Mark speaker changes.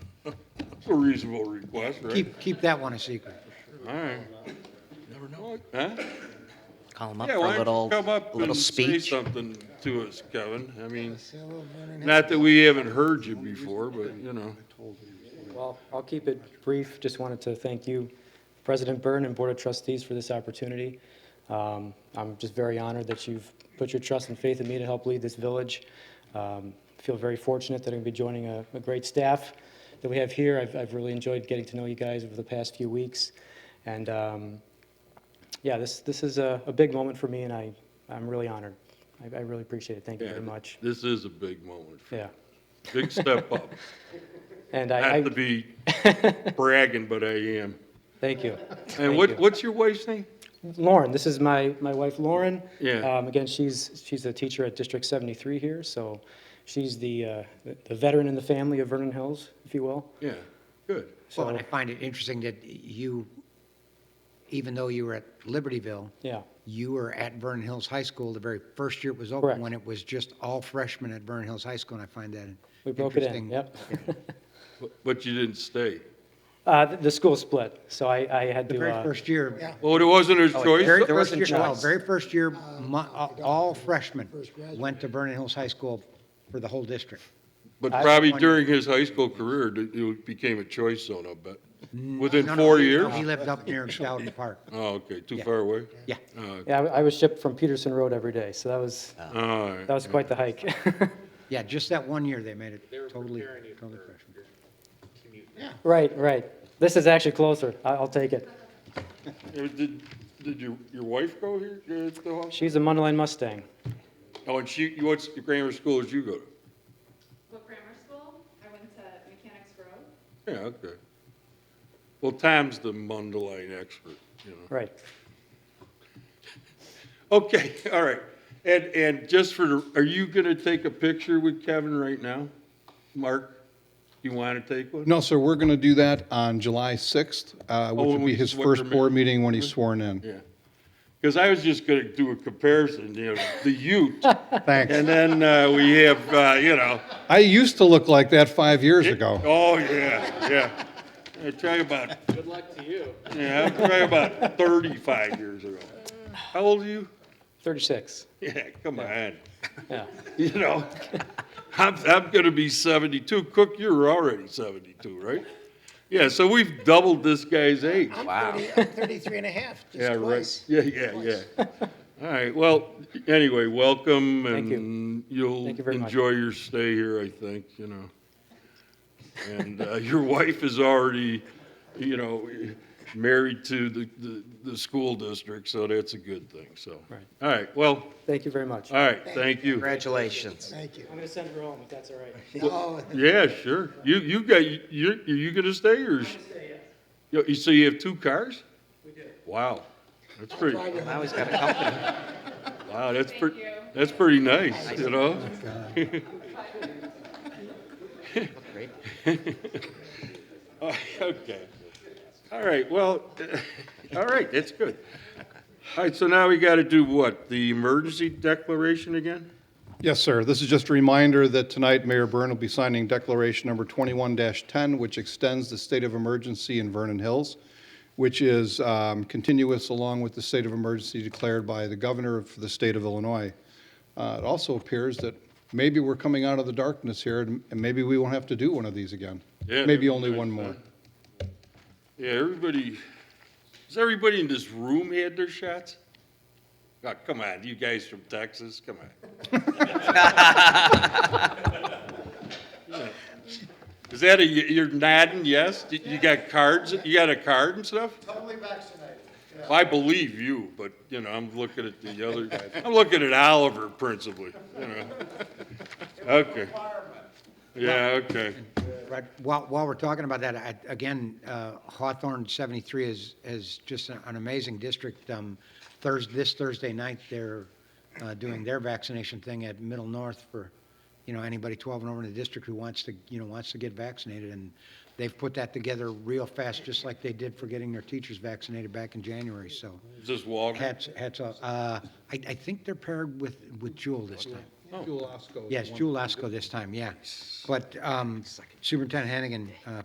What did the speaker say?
Speaker 1: a reasonable request, right?
Speaker 2: Keep, keep that one a secret.
Speaker 1: All right. Never know. Huh?
Speaker 3: Call him up
Speaker 1: Yeah,
Speaker 3: for
Speaker 1: why
Speaker 3: a little,
Speaker 1: don't you come up
Speaker 3: a little
Speaker 1: and say
Speaker 3: speech.
Speaker 1: something to us, Kevin? I mean, not that we haven't heard you before, but, you know.
Speaker 4: Well, I'll keep it brief. Just wanted to thank you, President Byrne and Board of Trustees, for this opportunity. Um, I'm just very honored that you've put your trust and faith in me to help lead this village. Um, Feel very fortunate that I'm going to be joining a a great staff that we have here. I've- I've really enjoyed getting to know you guys over the past few weeks. And um, yeah, this this is a a big moment for me, and I- I'm really honored. I I really appreciate it. Thank you
Speaker 1: yeah,
Speaker 4: very much.
Speaker 1: This is a big moment, for-
Speaker 4: Yeah.
Speaker 1: big step up.
Speaker 4: And I,
Speaker 1: Not to
Speaker 4: I-
Speaker 1: be bragging, but I am.
Speaker 4: thank you.
Speaker 1: And
Speaker 4: Thank
Speaker 1: what,
Speaker 4: you.
Speaker 1: what's your wife's name?
Speaker 4: Lauren, this is my, my wife Lauren.
Speaker 1: Yeah.
Speaker 4: Um, Again, she's, she's a teacher at District 73 here, so she's the, uh, the veteran in the family of Vernon Hills, if you will.
Speaker 1: Yeah, good.
Speaker 2: Well, and
Speaker 4: So,
Speaker 2: I find it interesting that you, even though you were at Libertyville,
Speaker 4: yeah,
Speaker 2: you were at Vernon Hills High School the very first year it was
Speaker 4: Correct.
Speaker 2: open, when it was just all freshmen at Vernon Hills High School, and I find that
Speaker 4: we broke it
Speaker 2: interesting.
Speaker 4: in, yep.
Speaker 1: But- But you didn't stay.
Speaker 4: Uh, The the school split, so I, I had
Speaker 2: The
Speaker 4: to,
Speaker 2: very
Speaker 4: uh,
Speaker 2: first year.
Speaker 1: Oh, it wasn't her
Speaker 2: very
Speaker 1: choice?
Speaker 4: there
Speaker 2: first
Speaker 4: wasn't
Speaker 2: year- well,
Speaker 4: choice.
Speaker 2: Very first year, mu- uh, all freshmen went to Vernon Hills High School for the whole district.
Speaker 1: But
Speaker 4: I-
Speaker 1: probably during his high school career, it- it became a choice zone, I bet.
Speaker 4: Mm,
Speaker 1: Within
Speaker 2: No, no,
Speaker 1: four
Speaker 2: he- no,
Speaker 1: years?
Speaker 2: He lived up near Stoughton Park.
Speaker 1: Oh, okay, too far away?
Speaker 2: Yeah.
Speaker 1: Oh,
Speaker 4: yeah, I I was shipped from Peterson Road every day, so that was,
Speaker 1: All right.
Speaker 4: that was quite the hike.
Speaker 2: Yeah, just that one year, they made it totally, totally freshman.
Speaker 4: Right, right. This is actually closer, I- I'll take it.
Speaker 1: Uh, Did, did your, your wife go here uh, to the hospital?
Speaker 4: She's a Mundelein Mustang.
Speaker 1: Oh, and she, you- what's the grammar school did you go to?
Speaker 5: What grammar school? I went to Mechanics Grove.
Speaker 1: Yeah, okay. Well, Tom's the Mundelein expert, you know.
Speaker 4: Right,
Speaker 1: Okay, all right. And, and just for, the- are you going to take a picture with Kevin right now? Mark, you want to take one?
Speaker 6: No, sir, we're going to do that on July 6th, uh,
Speaker 1: Oh,
Speaker 6: which
Speaker 1: when
Speaker 6: will
Speaker 1: we-
Speaker 6: be his
Speaker 1: what
Speaker 6: first
Speaker 1: permit-
Speaker 6: board meeting when he's sworn in.
Speaker 1: Yeah. Because I was just going to do a comparison, you know, the Ute,
Speaker 6: Thanks.
Speaker 1: and then uh, we have, uh, you know.
Speaker 6: I used to look like that five years ago.
Speaker 1: Oh, yeah, yeah. I try about. Good luck to you. Yeah, I try about 35 years ago. How old are you?
Speaker 4: 36,
Speaker 1: Yeah, come on.
Speaker 4: yeah.
Speaker 1: You know, I'm, I'm going to be 72. Cook, you're already 72, right? Yeah, so we've doubled this guy's age.
Speaker 3: Wow.
Speaker 7: 33 and a half, just
Speaker 1: Yeah, right.
Speaker 7: twice.
Speaker 1: Yeah, yeah, yeah. All right, well, anyway, welcome
Speaker 4: Thank you.
Speaker 1: and you'll
Speaker 4: Thank you very much.
Speaker 1: enjoy your stay here, I think, you know. And uh, your wife is already, you know, married to the, the, the school district, so that's a good thing, so.
Speaker 4: Right.
Speaker 1: All right, well,
Speaker 4: Thank you very much.
Speaker 1: all right, thank you.
Speaker 3: Congratulations.
Speaker 7: Thank you.
Speaker 4: I'm going to send her home, if that's all right.
Speaker 7: Oh,
Speaker 1: Yeah, sure. You, you got, you, are you gonna stay or? is- You- you- So you have two cars? We do. Wow, that's pretty,
Speaker 3: Now he's got a company.
Speaker 1: wow, that's
Speaker 5: Thank
Speaker 1: pretty,
Speaker 5: you.
Speaker 1: that's pretty nice, you know?
Speaker 3: Great.
Speaker 1: Oh, Okay. All right, well, all right, that's good. All right, so now we got to do what? The emergency declaration again?
Speaker 6: Yes, sir. This is just a reminder that tonight Mayor Byrne will be signing Declaration Number 21-10, which extends the state of emergency in Vernon Hills, which is um, continuous along with the state of emergency declared by the governor of the state of Illinois. Uh, It also appears that maybe we're coming out of the darkness here, and and maybe we won't have to do one of these again.
Speaker 1: Yeah,
Speaker 6: Maybe only
Speaker 1: everybody's
Speaker 6: one more.
Speaker 1: done. Yeah, everybody, has everybody in this room had their shots? Oh, come on, you guys from Texas, come on. Is that a, you're nodding yes? You- You got cards, you got a card and stuff?
Speaker 7: totally vaccinated.
Speaker 1: Well, I believe you, but, you know, I'm looking at the other guy. I'm looking at Oliver principally, you know. Okay. Yeah, okay.
Speaker 2: Right, while, while we're talking about that, I, again, uh, Hawthorne seventy-three is, is just an an amazing district. Um, Thursday, this Thursday night, they're, uh, doing their vaccination thing at Middle North for, you know, anybody twelve and over in the district who wants to, you know, wants to get vaccinated, and they've put that together real fast, just like they did for getting their teachers vaccinated back in January, so
Speaker 1: Is this Walgreens?
Speaker 2: hats, hats off. Uh, I, I think they're paired with, with Jewel this time.
Speaker 6: Jewel Osco is the
Speaker 2: Yes,
Speaker 6: one.
Speaker 2: Jewel Osco this time, yeah. But um, Superintendent Hannigan uh,